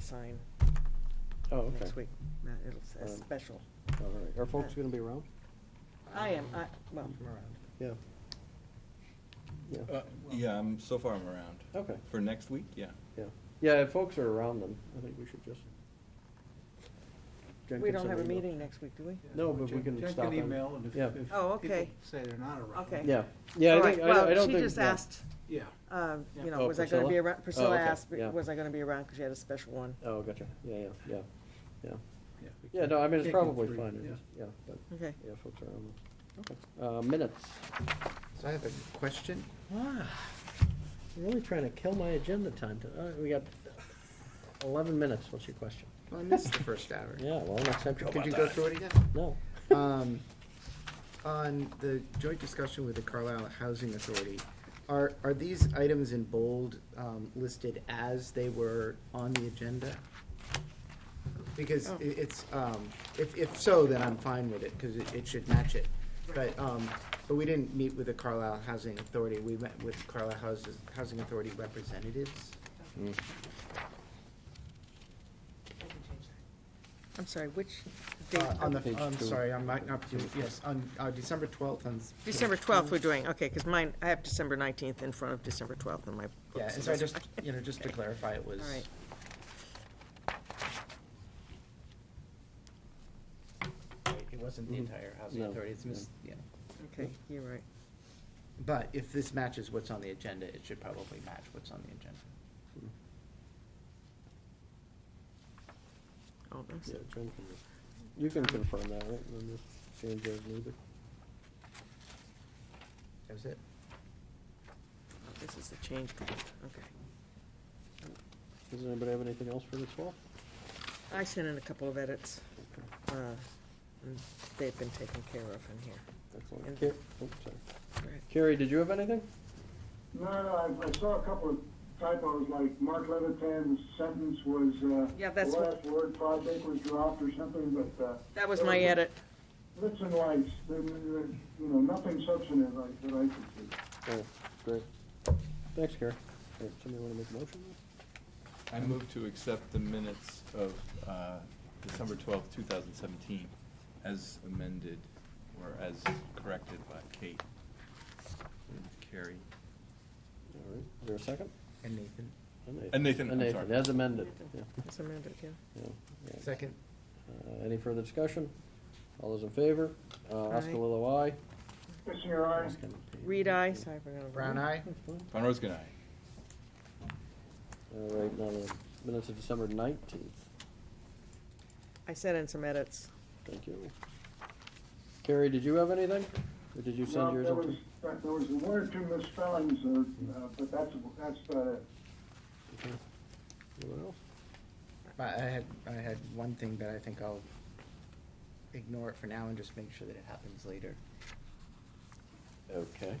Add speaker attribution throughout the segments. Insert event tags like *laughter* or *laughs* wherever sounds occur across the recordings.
Speaker 1: sign
Speaker 2: Oh, okay.
Speaker 1: next week. Matt, It'll say
Speaker 2: Um,
Speaker 1: special.
Speaker 2: All right. Are folks gonna be around?
Speaker 1: I am, I, well,
Speaker 2: Yeah. Yeah,
Speaker 3: Uh, Yeah, I'm, so far I'm around.
Speaker 2: okay,
Speaker 3: For next week, yeah.
Speaker 2: yeah. Yeah, if folks are around then, I think we should just. Jen
Speaker 1: we
Speaker 2: can
Speaker 1: don't
Speaker 2: send
Speaker 1: have a
Speaker 2: an email.
Speaker 1: meeting next week, do we?
Speaker 2: No, but we
Speaker 4: Check-
Speaker 2: can
Speaker 4: check
Speaker 2: stop
Speaker 4: an
Speaker 2: them.
Speaker 4: email, and if-
Speaker 2: Yeah.
Speaker 4: if
Speaker 1: Oh,
Speaker 4: people
Speaker 1: okay.
Speaker 4: Say they're not around.
Speaker 1: Okay.
Speaker 2: Yeah, yeah, I
Speaker 1: All
Speaker 2: think,
Speaker 1: right,
Speaker 2: I don't I
Speaker 1: well,
Speaker 2: don't
Speaker 1: she
Speaker 2: think.
Speaker 1: just
Speaker 2: yeah.
Speaker 1: asked,
Speaker 4: Yeah,
Speaker 1: uh, you
Speaker 4: Yeah.
Speaker 1: know,
Speaker 2: Oh,
Speaker 1: was I gonna be
Speaker 2: Priscilla?
Speaker 1: around,
Speaker 2: Oh,
Speaker 1: Priscilla
Speaker 2: okay,
Speaker 1: asked,
Speaker 2: yeah.
Speaker 1: was I gonna be around, because she had a special one.
Speaker 2: Oh, gotcha. Yeah, yeah, yeah, yeah.
Speaker 4: yeah. we
Speaker 2: Yeah,
Speaker 4: can-
Speaker 2: no, I mean, it's
Speaker 4: can't get
Speaker 2: probably
Speaker 4: through,
Speaker 2: fine. It
Speaker 4: yeah.
Speaker 2: is- Yeah, but,
Speaker 1: Okay.
Speaker 2: yeah, folks are around. then. Uh, minutes.
Speaker 5: So I have a question.
Speaker 2: Wow, really trying to kill my agenda time. to- uh, We got eleven minutes. What's your question?
Speaker 5: *laughs* Well, I missed the first hour.
Speaker 2: Yeah, well, next time.
Speaker 5: Could you go through it again?
Speaker 2: No.
Speaker 5: Um, On the joint discussion with the Carlisle Housing Authority, are, are these items in bold um, listed as they were on the agenda? Because i- it's, um, if, if so, then I'm fine with it, because it, it should match it. But, um, but we didn't meet with the Carlisle Housing Authority, we met with Carlisle Houses, Housing Authority representatives.
Speaker 1: I'm sorry, which date?
Speaker 5: Uh, On
Speaker 2: Page
Speaker 5: the, I'm
Speaker 2: two.
Speaker 5: sorry, I might not, be- yes, on, uh, December twelfth on. s-
Speaker 1: December twelfth we're doing, okay, because mine, I have December nineteenth in front of December twelfth in my book.
Speaker 5: Yeah, and so I just, you know, just to clarify, it was.
Speaker 1: All right.
Speaker 5: Right, It wasn't the
Speaker 2: Mhm.
Speaker 5: entire housing
Speaker 2: No,
Speaker 5: authority, it's mis, yeah.
Speaker 1: Okay, you're right.
Speaker 5: But if this matches what's on the agenda, it should probably match what's on the agenda.
Speaker 1: Oh, that's-
Speaker 2: Yeah, Jen can, you can confirm that, right? And then just change those needed.
Speaker 5: That was it.
Speaker 1: oh, this is the change, one. okay.
Speaker 2: Does anybody have anything else for the twelfth?
Speaker 1: I sent in a couple of edits, uh, and they've been taken care of in here.
Speaker 2: Excellent.
Speaker 1: And-
Speaker 2: Car- oops, Oh, sorry.
Speaker 1: All right.
Speaker 2: Carrie, did you have anything?
Speaker 6: No, no, I, I saw a couple of typos, like Mark Levitan's sentence was, uh.
Speaker 1: Yeah, that's
Speaker 6: The
Speaker 1: what-
Speaker 6: last word project was dropped or something, but, uh.
Speaker 1: That was my edit.
Speaker 6: Bits and lights, there, there, you know, nothing substantive like, that I could see.
Speaker 2: Oh, great. Thanks, Carrie. All right, Somebody wanna make a motion?
Speaker 3: I move to accept the minutes of uh, December twelfth, two thousand seventeen, as amended, or as corrected by Kate and Carrie.
Speaker 2: All right, is there a second?
Speaker 5: And Nathan,
Speaker 3: And Nathan,
Speaker 2: And
Speaker 3: I'm
Speaker 2: Nathan,
Speaker 3: sorry.
Speaker 2: as amended. Yeah,
Speaker 1: That's amended, yeah.
Speaker 2: yeah, yeah.
Speaker 5: second?
Speaker 2: Uh, Any further discussion? All those in favor? Uh, Oscar
Speaker 1: Aye.
Speaker 2: Lilo, aye.
Speaker 6: Kissing your eyes.
Speaker 1: Reed, I, sorry, we're gonna.
Speaker 5: Brown eye?
Speaker 3: Von Roskin, aye.
Speaker 2: All right, now the minutes of December nineteenth.
Speaker 1: I sent in some
Speaker 5: *laughs*
Speaker 1: edits.
Speaker 2: Thank you. Carrie, did you have anything? Or did you
Speaker 6: Well,
Speaker 2: send yours
Speaker 6: There
Speaker 2: up to?
Speaker 6: was, but there was one or two misspellings, uh, uh, but that's, that's uh, about it.
Speaker 2: Okay. Anyone else?
Speaker 5: I I had, I had one thing, but I think I'll ignore it for now and just make sure that it happens later.
Speaker 2: Okay.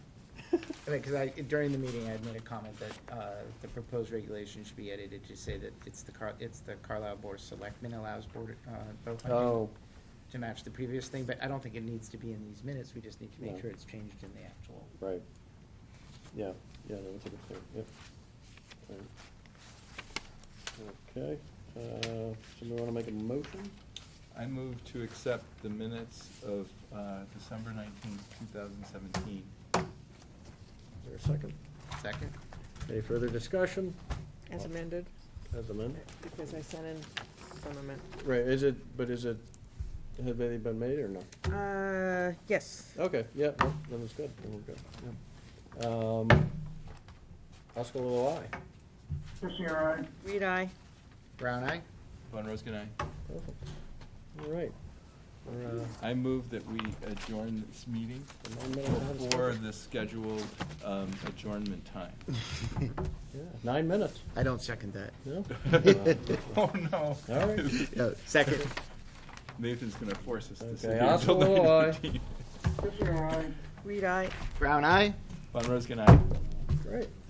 Speaker 5: Because I, during the meeting, I made a comment that uh, the proposed regulation should be edited to say that it's the Car, it's the Carlisle Board of Selectmen allows board, uh, bow hunting
Speaker 2: Oh,
Speaker 5: to match the previous thing, but I don't think it needs to be in these minutes, we just need to
Speaker 2: No.
Speaker 5: make sure it's changed in the actual.
Speaker 2: right. Yeah, yeah, no, that's a good point, yep. Alright. Okay, uh, somebody wanna make a motion?
Speaker 3: I move to accept the minutes of uh, December nineteenth, two thousand seventeen.
Speaker 2: Is there a second?
Speaker 5: Second?
Speaker 2: Any further discussion?
Speaker 1: As amended,
Speaker 2: As amended?
Speaker 1: because I sent in some amendment.
Speaker 2: Right, is it, but is it, have any been made or no?
Speaker 1: Uh, yes.
Speaker 2: Okay, yeah, no, then it's good, then we're good, yeah. Um, Oscar Lilo, aye.
Speaker 6: Kissing your eyes.
Speaker 1: Reed, I.
Speaker 5: Brown eye?
Speaker 3: Von Roskin, aye.
Speaker 2: Perfect. All right. We're, uh,
Speaker 3: I move that we adjourn this meeting
Speaker 2: in nine minutes ahead of
Speaker 3: before
Speaker 2: schedule.
Speaker 3: the scheduled um, adjournment time.
Speaker 2: Yeah, Nine minutes,
Speaker 5: I don't second that.
Speaker 2: no?
Speaker 3: *laughs* Oh, no.
Speaker 2: All
Speaker 3: *laughs*
Speaker 2: right.
Speaker 5: *laughs* No, second.
Speaker 3: Nathan's gonna force us to sit
Speaker 2: Okay,
Speaker 3: here until
Speaker 2: Oscar Lilloye.
Speaker 3: 9:15.
Speaker 6: Kissing your eyes.
Speaker 1: Reed, I.
Speaker 5: Brown eye?
Speaker 3: Von Roskin, aye.
Speaker 2: Great.